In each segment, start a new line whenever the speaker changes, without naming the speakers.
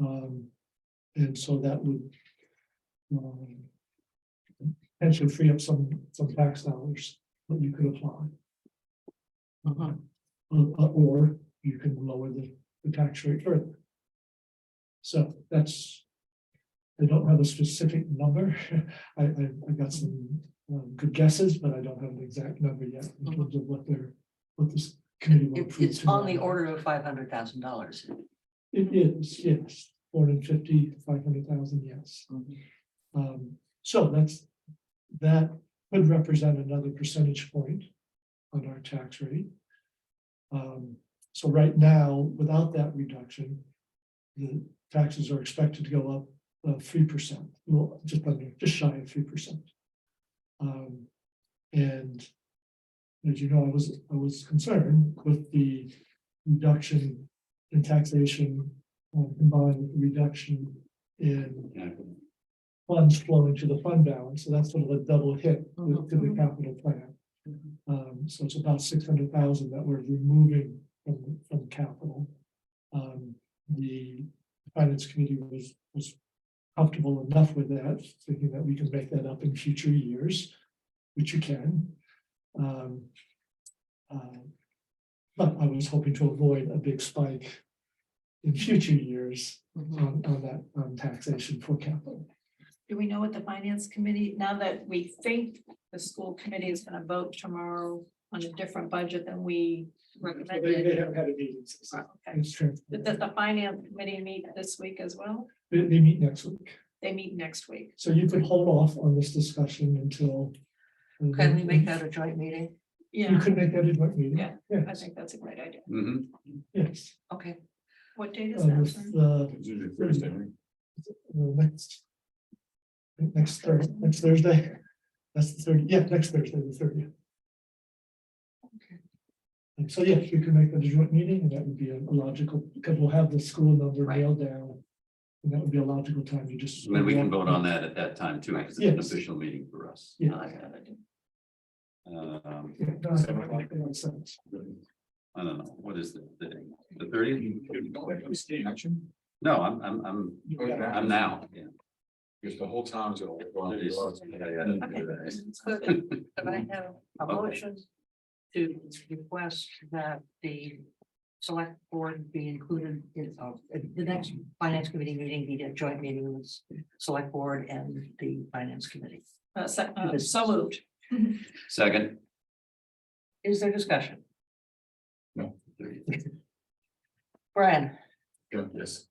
Um, and so that would. um, Potentially free up some, some tax dollars that you could apply. Uh, uh, or you can lower the, the tax rate further. So that's. I don't have a specific number. I, I, I've got some, um, good guesses, but I don't have an exact number yet in terms of what their, what this committee. will
It's,
approve
it's on the
tonight.
order of five hundred thousand dollars.
It is, yes, four hundred fifty, five hundred thousand, yes. Um, so that's, that could represent another percentage point on our tax rate. Um, so right now, without that reduction, the taxes are expected to go up uh three percent, well, just under, just shy of three percent. Um, and as you know, I was, I was concerned with the reduction in taxation uh, combined with the reduction in funds flowing to the fund balance, so that's sort of a double hit with- to the
Mhm.
capital plan. Um, so it's about six hundred thousand that we're removing from, from capital. Um, the finance committee was, was comfortable enough with that, thinking that we can make that up in future years, which you can. Um, uh, But I was hoping to avoid a big spike in future years on, on that, on taxation for capital.
Do we know what the finance committee, now that we think the school committee is gonna vote tomorrow on a different budget than we
So They, they
recommended?
haven't had a meeting since.
Oh, Okay,
It's true.
but does the finance committee meet this week as well?
They, they meet next week,
They meet next week.
so you could hold off on this discussion until. uh,
Can we
Mm-hmm.
make that a joint meeting?
You
Yeah,
could make that a joint meeting.
Yeah, I
Yes,
think that's a great idea.
Mhm.
yes.
Okay,
What date is
Uh,
that?
this,
sorry?
uh,
It's usually Thursday, right?
the next. Next Thursday, next Thursday, that's the thirty, yeah, next Thursday, the thirtieth.
Okay.
And so, yes, you can make that a joint meeting, and that would be a logical, because we'll have the school number
Right.
nailed down. And that would be a logical time, you just.
And Then we can vote on that at that time too, because it's an
Yes.
official meeting for us.
Oh,
I like that idea.
Um,
Yeah, no, I don't think that makes sense.
I don't know, what is the, the, the thirtieth? No, I'm, I'm, I'm, I'm now, yeah.
Because the whole town's gonna. look
It is-
on
yeah,
you.
yeah, that's
Okay.
good.
So If I have a motion to request that the select board be included in, uh, the next finance committee meeting, be a joint meeting with the select board and the finance committee.
Uh, se- uh, So moved.
Second.
Is there discussion?
No.
30th.
Brian,
Yes,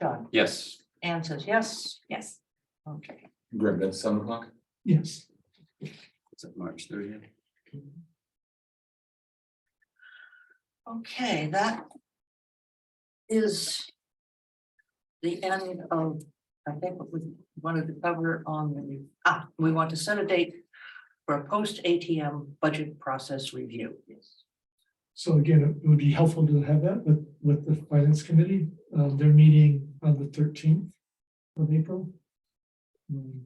John,
Yes,
Anne says yes.
Yes,
Okay.
Greg, that's seven o'clock?
Yes,
is it March thirtieth?
Okay, that is the end of, I think, what we wanted to cover on the, ah, we want to set a date for a post ATM budget process review.
so again, it would be helpful to have that with, with the finance committee, uh, they're meeting on the thirteenth of April. Um,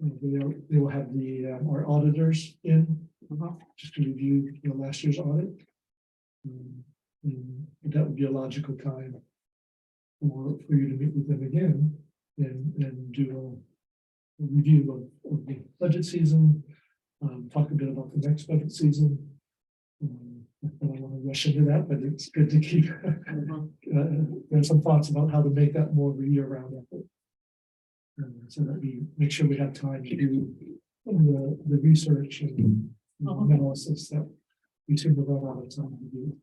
and They'll, they will have the, uh, our auditors in,
Mhm.
just to review, you know, last year's audit. Um, and that would be a logical time for, for you to meet with them again and, and do a review of, of the budget season, um, talk a bit about the next budget season. Um, I don't want to rush into that, but it's good to keep,
Mm-hmm.
uh, there's some thoughts about how to make that more of a year-round effort. Um, So that we make sure we have time to do the, the research and analysis that we seem to run out of time to do.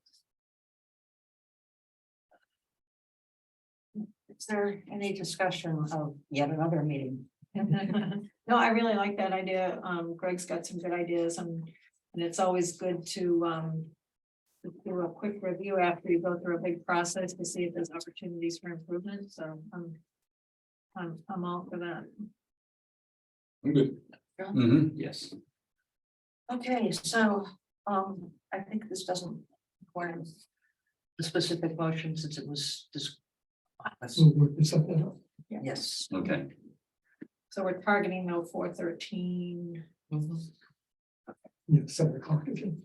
Is there any discussion of yet another meeting?
No, I really like that idea. Um, Greg's got some good ideas and, and it's always good to, um. Do a quick review after you go through a big process to see if there's opportunities for improvement, so I'm. I'm, I'm all for that.
I'm good.
hmm yes.
Okay, so, um, I think this doesn't require the specific motion since it was just.
So we're, it's up to-
Yes.
Okay,
So we're targeting though four thirteen.
Mhm.
yeah, seven o'clock again.